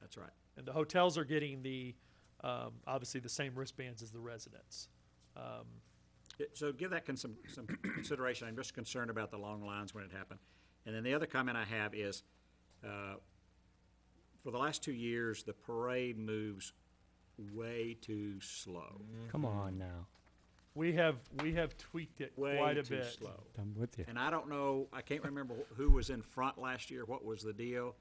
That's right. And the hotels are getting the, um, obviously the same wristbands as the residents. Um, Yeah, So give that con- some, some consideration. I'm just concerned about the long lines when it happened. And then the other comment I have is, uh, for the last two years, the parade moves way too slow. Mm-hmm. Come on now. We have, we have tweaked it Way quite a too bit. slow. I'm with you. And I don't know, I can't remember wh- who was in front last year, what was the deal,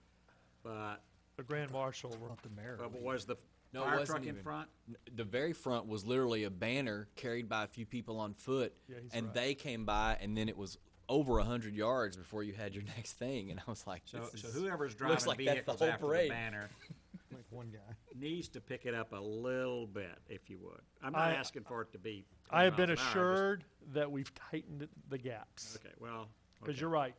but, The grand marshal, Not the mayor. but was the No, it fire wasn't truck in even. front? The very front was literally a banner carried by a few people on foot, Yeah, he's and right. they came by, and then it was over a hundred yards before you had your next thing, and I was like, So, this so is- whoever's looks driving like that's the vehicles whole after the parade. banner Like one guy. needs to pick it up a little bit, if you would. I'm not I- asking for it to be. I have 20 been miles an hour, just- assured that we've tightened the gaps. Okay, well. Because okay. you're right,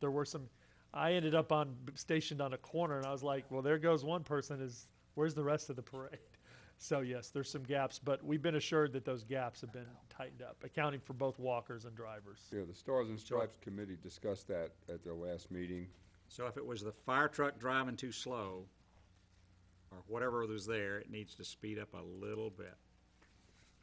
there were some, I ended up on, stationed on a corner, and I was like, well, there goes one person, is, where's the rest of the parade? So yes, there's some gaps, but we've been assured that those gaps have been tightened up, accounting for both walkers and drivers. Yeah, the Stars and Stripes Committee discussed that at their last meeting. So if it was the fire truck driving too slow, or whatever was there, it needs to speed up a little bit.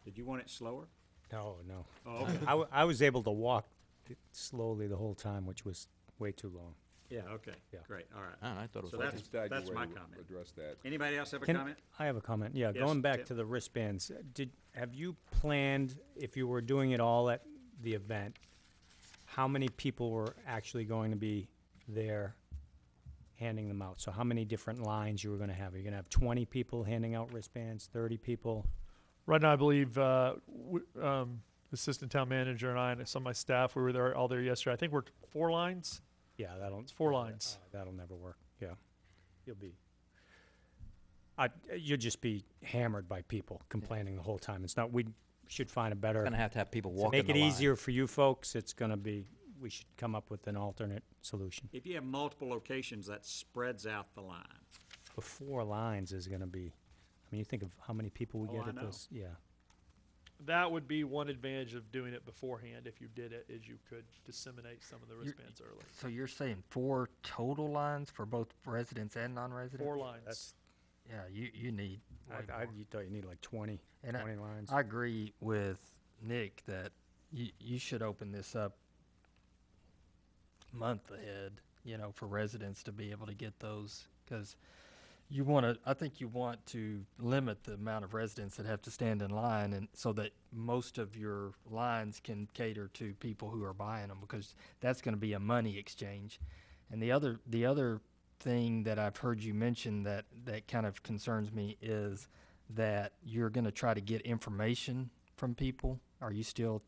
Did you want it slower? No, no. Oh, okay. I, w- I was able to walk t- slowly the whole time, which was way too long. Yeah, okay, Yeah. great, all I right. don't know, I thought it was So like that's, Just that that's way my to comment. Address that. Anybody else have a Can- comment? I have a comment. Yeah, Yes, going back Tim. to the wristbands, uh, did, have you planned, if you were doing it all at the event, how many people were actually going to be there handing them out? So how many different lines you were gonna have? Are you gonna have twenty people handing out wristbands, thirty people? Right now, I believe uh, w- um, assistant town manager and I and some of my staff, we were there all there yesterday. I think we're four lines. Yeah, that'll. It's four lines. uh, That'll never work, yeah. You'll be. I, you'll just be hammered by people complaining the whole time. It's not, we should find a better. Gonna have to have people To walking make the it line. easier for you folks, it's gonna be, we should come up with an alternate solution. If you have multiple locations, that spreads out the line. The four lines is gonna be, I mean, you think of how many people we Oh, get I at know. this, yeah. That would be one advantage of doing it beforehand. If you did it, is you could disseminate some of the wristbands early. So you're saying four total lines for both residents and non-residents? Four lines. That's- Yeah, you, you need way I, I, more. you thought you need like twenty, And I- twenty lines. I agree with Nick that you, you should open this up month ahead, you know, for residents to be able to get those because you want to, I think you want to limit the amount of residents that have to stand in line and so that most of your lines can cater to people who are buying them because that's going to be a money exchange. And the other, the other thing that I've heard you mention that, that kind of concerns me is that you're going to try to get information from people. Are you still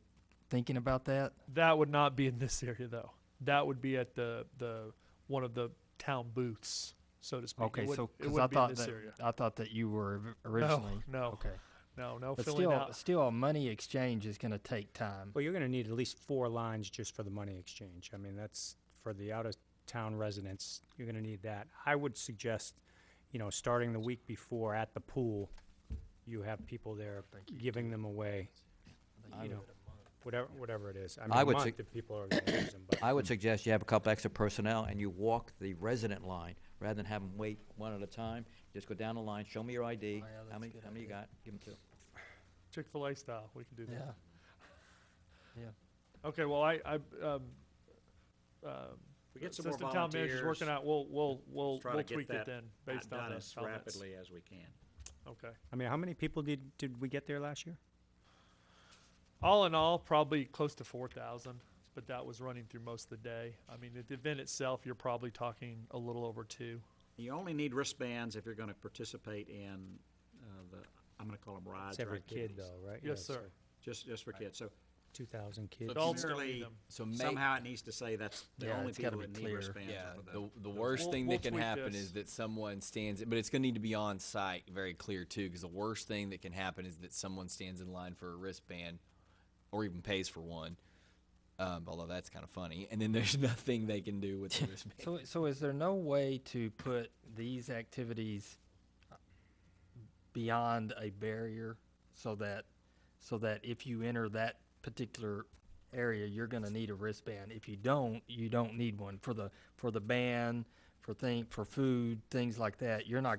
thinking about that? That would not be in this area though. That would be at the the one of the town booths, so to speak. It Okay, would- so it because would I be in thought this that area. I thought that you were or- originally No, no, okay, no, no. but filling still, out. still, a money exchange is going to take time. Well, you're gonna need at least four lines just for the money exchange. I mean, that's, for the out-of-town residents, you're gonna need that. I would suggest, you know, starting the week before at the pool, you have people there giving them away, you know, whatever, whatever it is. I mean, I a would month sug- if people are gonna use them, but. I would suggest you have a couple extra personnel and you walk the resident line rather than have them wait one at a time. Just go down the line, show me your ID, yeah, that's how a many, good how many you got, give them two. Chick Fil A style. We can do that. Yeah, Okay, well, I, I, um, um, We get some more assistant town manager's working volunteers. out, we'll, we'll, we'll, try to we'll get tweak that it then, based on Done those as comments. rapidly as we can. Okay. I mean, how many people did, did we get there last year? All in all, probably close to four thousand, but that was running through most of the day. I mean, at the event itself, you're probably talking a little over two. You only need wristbands if you're gonna participate in, uh, the, I'm gonna call them rides It's or every kid activities. though, right? Yes, sir. Just, just for kids, so Two thousand kids. Adults Adults- don't Clearly, need them. so make, Somehow it needs to say that's the Yeah, only it's gotta people be that need clear. wristbands. yeah, are for the, those. the worst We'll- thing we'll that can tweak happen this. is that someone stands, but it's going to need to be on site, very clear too, because the worst thing that can happen is that someone stands in line for a wristband, or even pays for one. Um, although that's kind of funny, and then there's nothing they can do with the wristband. So, so is there no way to put these activities beyond a barrier so that, so that if you enter that particular area, you're gonna need a wristband? If you don't, you don't need one for the, for the band, for thing, for food, things like that. You're not